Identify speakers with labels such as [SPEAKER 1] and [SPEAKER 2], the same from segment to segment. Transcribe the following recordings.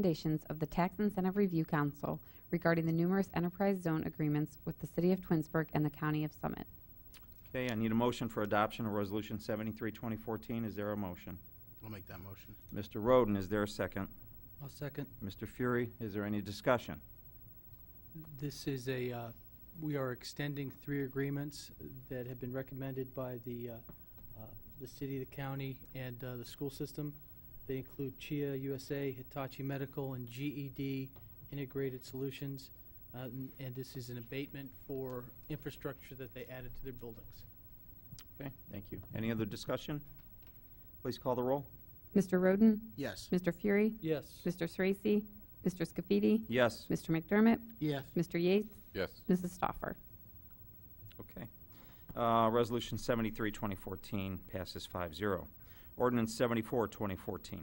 [SPEAKER 1] recommendations of the Tax Incentive Review Council regarding the numerous enterprise zone agreements with the City of Twinsburg and the County of Summit.
[SPEAKER 2] Okay, I need a motion for adoption of Resolution 73, 2014. Is there a motion?
[SPEAKER 3] I'll make that motion.
[SPEAKER 2] Mr. Roden, is there a second?
[SPEAKER 4] I'll second.
[SPEAKER 2] Mr. Fury, is there any discussion?
[SPEAKER 4] This is a, uh, we are extending three agreements that have been recommended by the, uh, uh, the city, the county, and uh, the school system. They include Chia USA, Hitachi Medical, and GED Integrated Solutions. Uh, n- And this is an abatement for infrastructure that they added to their buildings.
[SPEAKER 2] Okay, thank you. Any other discussion? Please call the roll.
[SPEAKER 1] Mr. Roden?
[SPEAKER 3] Yes.
[SPEAKER 1] Mr. Fury?
[SPEAKER 4] Yes.
[SPEAKER 1] Mr. Sorese? Mr. Scafidi?
[SPEAKER 2] Yes,
[SPEAKER 1] Mr. McDermott?
[SPEAKER 3] Yes.
[SPEAKER 1] Mr. Yates?
[SPEAKER 5] yes,
[SPEAKER 1] Mrs. Stoffer?
[SPEAKER 2] okay. Uh, Resolution 73, 2014 passes 5-0. Ordinance 74, 2014.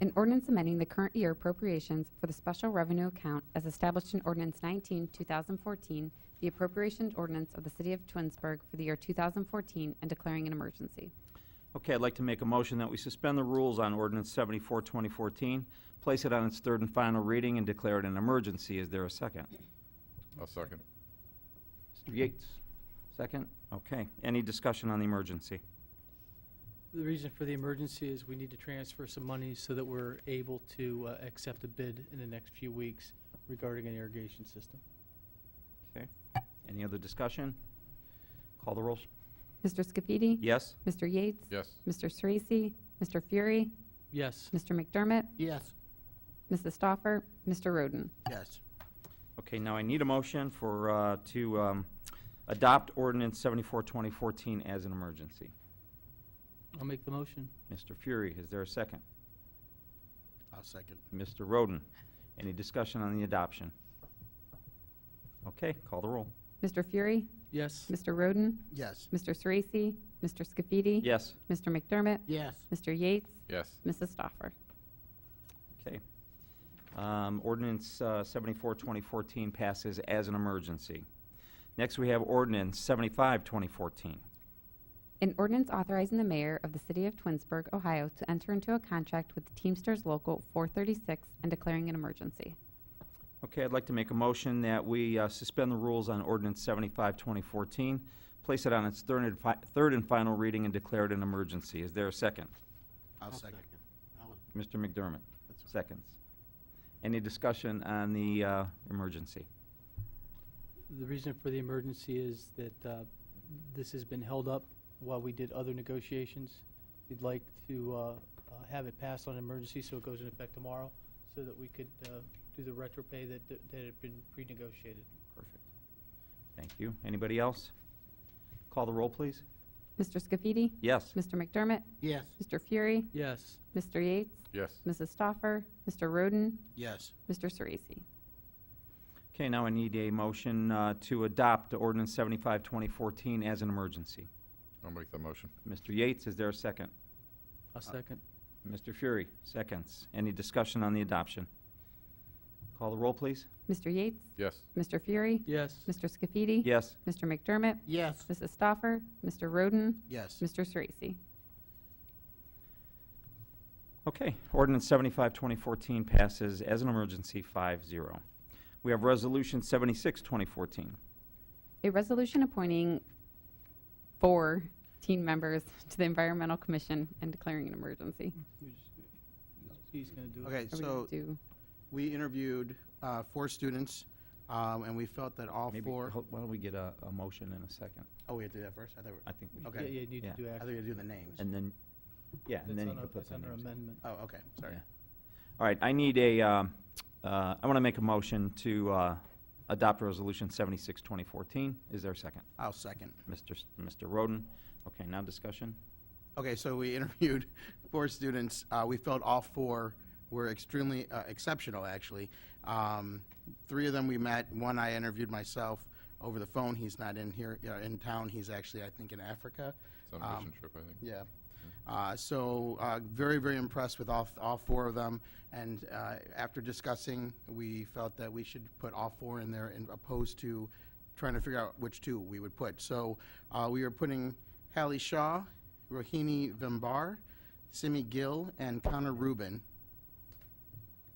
[SPEAKER 1] An ordinance amending the current year appropriations for the special revenue account as established in Ordinance 19, 2014, the appropriations ordinance of the City of Twinsburg for the year 2014 and declaring an emergency.
[SPEAKER 2] Okay, I'd like to make a motion that we suspend the rules on Ordinance 74, 2014, place it on its third and final reading, and declare it an emergency. Is there a second?
[SPEAKER 5] I'll second.
[SPEAKER 2] Mr. Yates, second? Okay. Any discussion on the emergency?
[SPEAKER 4] The reason for the emergency is we need to transfer some money so that we're able to uh, accept a bid in the next few weeks regarding an irrigation system.
[SPEAKER 2] Okay. Any other discussion? Call the rolls.
[SPEAKER 1] Mr. Scafidi?
[SPEAKER 2] Yes?
[SPEAKER 1] Mr. Yates?
[SPEAKER 5] Yes,
[SPEAKER 1] Mr. Sorese? Mr. Fury?
[SPEAKER 4] Yes.
[SPEAKER 1] Mr. McDermott?
[SPEAKER 3] Yes.
[SPEAKER 1] Mrs. Stoffer? Mr. Roden?
[SPEAKER 3] Yes.
[SPEAKER 2] Okay, now I need a motion for, uh, to um, adopt ordinance 74, 2014 as an emergency.
[SPEAKER 4] I'll make the motion.
[SPEAKER 2] Mr. Fury, is there a second?
[SPEAKER 3] I'll second.
[SPEAKER 2] Mr. Roden, any discussion on the adoption? Okay, call the roll.
[SPEAKER 1] Mr. Fury?
[SPEAKER 4] Yes.
[SPEAKER 1] Mr. Roden?
[SPEAKER 3] Yes.
[SPEAKER 1] Mr. Sorese? Mr. Scafidi?
[SPEAKER 2] Yes,
[SPEAKER 1] Mr. McDermott?
[SPEAKER 3] Yes.
[SPEAKER 1] Mr. Yates?
[SPEAKER 5] yes,
[SPEAKER 1] Mrs. Stoffer?
[SPEAKER 2] okay. Um, Ordinance uh, 74, 2014 passes as an emergency. Next, we have ordinance 75, 2014.
[SPEAKER 1] An ordinance authorizing the mayor of the city of Twinsburg, Ohio to enter into a contract with Teamsters Local 436 and declaring an emergency.
[SPEAKER 2] Okay, I'd like to make a motion that we uh, suspend the rules on ordinance 75, 2014, place it on its third and fi- third and final reading and declare it an emergency. Is there a second?
[SPEAKER 3] I'll second.
[SPEAKER 2] Mr. McDermott,
[SPEAKER 3] That's right.
[SPEAKER 2] seconds. Any discussion on the uh, emergency?
[SPEAKER 4] The reason for the emergency is that uh, this has been held up while we did other negotiations. We'd like to uh, uh, have it passed on emergency so it goes into effect tomorrow so that we could uh, do the retro pay that that had been pre-negotiated.
[SPEAKER 2] Perfect. Thank you. Anybody else? Call the roll, please.
[SPEAKER 1] Mr. Scafidi?
[SPEAKER 2] Yes.
[SPEAKER 1] Mr. McDermott?
[SPEAKER 3] Yes.
[SPEAKER 1] Mr. Fury?
[SPEAKER 4] Yes.
[SPEAKER 1] Mr. Yates?
[SPEAKER 5] yes,
[SPEAKER 1] Mrs. Stoffer? Mr. Roden?
[SPEAKER 3] Yes.
[SPEAKER 1] Mr. Sorese?
[SPEAKER 2] Okay, now I need a motion uh, to adopt ordinance 75, 2014 as an emergency.
[SPEAKER 5] I'll make the motion.
[SPEAKER 2] Mr. Yates, is there a second?
[SPEAKER 4] I'll second.
[SPEAKER 2] Mr. Fury, seconds. Any discussion on the adoption? Call the roll, please.
[SPEAKER 1] Mr. Yates?
[SPEAKER 5] Yes,
[SPEAKER 1] Mr. Fury?
[SPEAKER 4] Yes.
[SPEAKER 1] Mr. Scafidi?
[SPEAKER 2] Yes.
[SPEAKER 1] Mr. McDermott?
[SPEAKER 3] Yes.
[SPEAKER 1] Mrs. Stoffer? Mr. Roden?
[SPEAKER 3] Yes.
[SPEAKER 1] Mr. Sorese?
[SPEAKER 2] Okay, ordinance 75, 2014 passes as an emergency 5-0. We have resolution 76, 2014.
[SPEAKER 1] A resolution appointing four team members to the Environmental Commission and declaring an emergency.
[SPEAKER 4] He's going to do it.
[SPEAKER 3] Okay,
[SPEAKER 1] Are we gonna
[SPEAKER 3] so
[SPEAKER 1] do-
[SPEAKER 3] we interviewed uh, four students, um, and we felt that all
[SPEAKER 2] Maybe,
[SPEAKER 3] four,
[SPEAKER 2] ho- why don't we get a, a motion in a second?
[SPEAKER 3] oh, we have to do that first? I thought, we-
[SPEAKER 2] I think we,
[SPEAKER 3] Okay.
[SPEAKER 4] Yeah, you need to
[SPEAKER 2] Yeah.
[SPEAKER 4] do
[SPEAKER 3] I thought
[SPEAKER 4] action.
[SPEAKER 3] we had to do the names.
[SPEAKER 2] and then, yeah,
[SPEAKER 4] It's
[SPEAKER 2] and then you
[SPEAKER 4] on a-
[SPEAKER 2] can put
[SPEAKER 4] It's
[SPEAKER 2] the
[SPEAKER 4] under
[SPEAKER 2] names.
[SPEAKER 4] amendment.
[SPEAKER 3] Oh, okay, sorry.
[SPEAKER 2] Yeah. All right, I need a, um, uh, I want to make a motion to uh, adopt resolution 76, 2014. Is there a second?
[SPEAKER 3] I'll second.
[SPEAKER 2] Mr. S- Mr. Roden? Okay, now discussion?
[SPEAKER 3] Okay, so we interviewed four students. Uh, we felt all four were extremely uh, exceptional, actually. Um, three of them we met. One I interviewed myself over the phone. He's not in here, uh, in town. He's actually, I think, in Africa.
[SPEAKER 5] it's on
[SPEAKER 3] Um,
[SPEAKER 5] a mission trip, I think.
[SPEAKER 3] Yeah. Uh, so uh, very, very impressed with all, all four of them. And uh, after discussing, we felt that we should put all four in there and opposed to trying to figure out which two we would put. So uh, we are putting Hallie Shaw, Rohini Vimbar, Simi Gill, and Connor Rubin